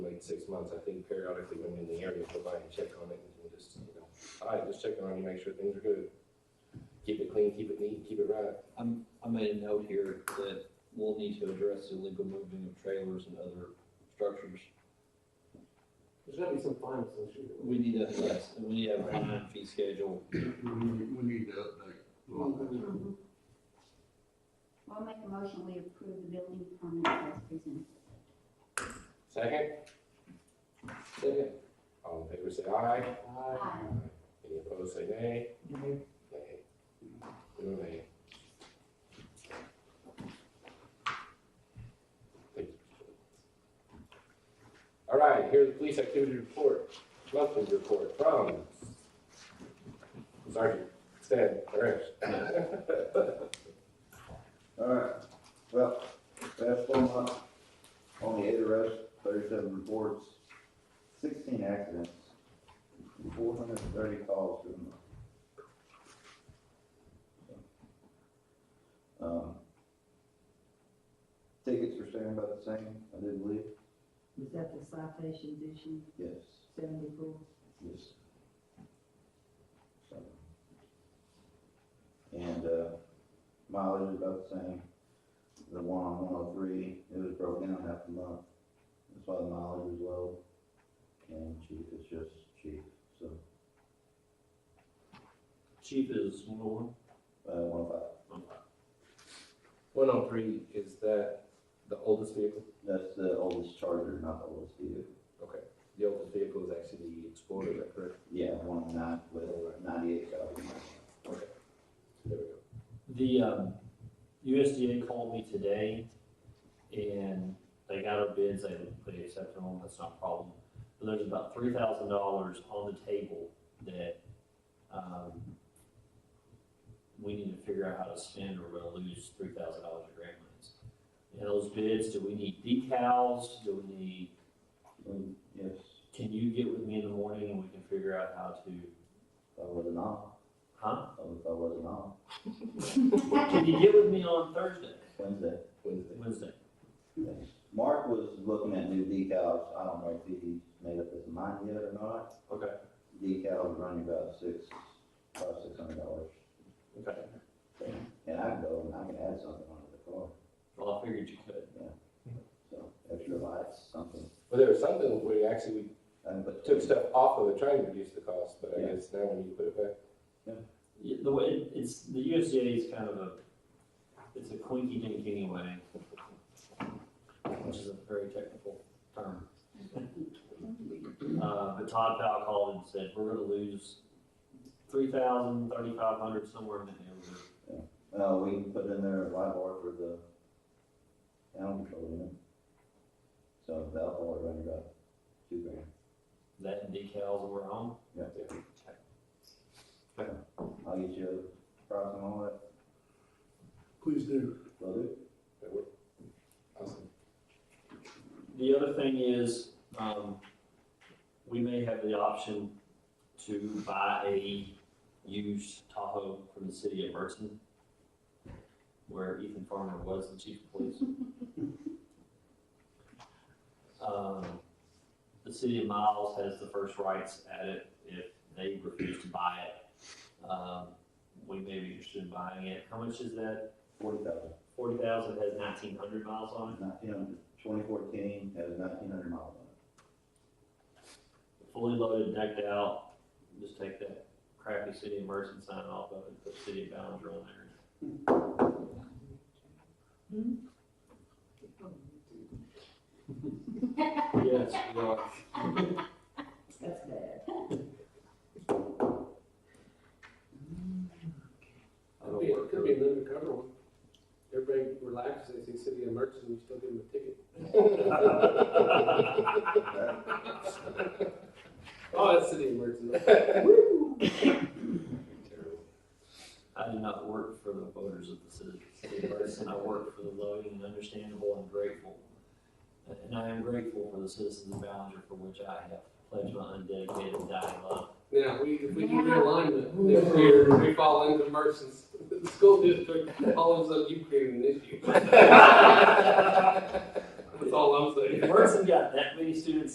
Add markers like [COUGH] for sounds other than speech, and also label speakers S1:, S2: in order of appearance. S1: in six months, I think periodically when you're in the area, go by and check on it and just, you know, all right, just checking on you, make sure things are good. Keep it clean, keep it neat, keep it right.
S2: I'm, I made a note here that we'll need to address the illegal moving of trailers and other structures.
S3: There's gotta be some fines associated with
S2: We need to, address- and we need to have a fine fee schedule.
S4: We need, we need to update. the law.
S3: it.
S5: Mm-hmm. I'll make a motion, we approve the building permit as presented.
S1: Second,
S3: Second.
S1: all in favor, say aye.
S3: Aye.
S5: Aye.
S1: Any opposed, say nay. Nay. You're a nay. Thank you. All right, here's the police activity report, monthly report from Sergeant Stan Parrish.
S6: Alright, well, last four months, only eight arrests, thirty-seven reports, sixteen accidents, and four hundred and thirty calls to the month. Um, Tickets are staying about the same, I do believe,
S7: Was that the citations issue,
S6: yes,
S7: seventy-four?
S6: yes. So. And, uh, mileage is about the same. The one on one oh three, it was broken down half a month. That's why the mileage was low. And cheap, it's just cheap, so,
S2: Chief is one oh one.
S6: uh, one oh
S1: One oh three, is that the oldest vehicle?
S6: five. That's the oldest Charger, not the oldest Buick.
S1: Okay, the oldest vehicle is actually the Explorer, is that correct?
S6: Yeah, one oh nine with ninety-eight thousand.
S1: There we go.
S8: The um, USDA called me today and they got our bids, they, they accepted them, that's not a problem. But there's about three thousand dollars on the table that, um, we need to figure out how to spend or we're gonna lose three thousand dollars in grant monies. And those bids, do we need decals, do we need,
S6: Um, Yes,
S8: can you get with me in the morning and we can figure out how to,
S6: if I wasn't off,
S8: huh?
S6: if I wasn't off,
S8: Can you get with me on Thursday,
S6: Wednesday.
S1: Wednesday.
S8: Wednesday?
S6: Yes. Mark was looking at new decals, I don't know if he made up his mind yet or not.
S8: Okay.
S6: Decals running about six, five, six hundred dollars.
S8: Okay.
S6: And I can go and I can add something onto the car,
S8: Well, I figured you could.
S6: so extra lights, something.
S1: Well, there was something where you actually
S6: I can put-
S1: took stuff off of it, trying to reduce the cost, but I
S6: Yeah.
S1: guess now we need to put it back.
S8: Yeah, the way it- it's the USDA is kind of a it's a quinky dink anyway, which is a very technical term.
S5: Mm-hmm.
S8: Uh, but Todd Powell called and said we're going to lose three thousand, thirty five hundred somewhere in that neighborhood.
S6: Uh, we can put in there a light bar for the animal control unit. So that'll probably run about two grand.
S8: That and decals were on.
S6: I'll get you a price on all that,
S4: Please do.
S6: will do.
S1: That work? Awesome.
S8: The other thing is um, we may have the option to buy a used Tahoe from the city of Burton, where Ethan Farmer was the chief of police. Um, The city of Miles has the first rights at it if they refuse to buy it. Um, We may be interested in buying it. How much is that?
S6: Forty thousand,
S8: Forty thousand has nineteen hundred miles on it.
S6: nineteen hundred, twenty fourteen, has nineteen hundred miles on it.
S8: fully loaded, decked out, just take that crappy city of Mercer sign off of it, and put city of Ballinger on there. Yes,
S7: That's bad.
S3: Could be, could be an undercover one. Everybody relaxes, they say city of Merchants, and you still give them a ticket. Oh, that's city of Merchants.
S8: I do not work for the voters of the city, city of Mercer, I work for the loving and understandable and grateful. And I am grateful for the citizens of Ballinger for which I have pledged my undedicated dying love.
S3: Now, we, if we do realignment, next year, we fall into Merchants, [LAUGHS] the school district, all of a sudden you create
S1: [LAUGHS]
S3: an [LAUGHS] issue. That's all I'm saying.
S8: If Mercer got that many students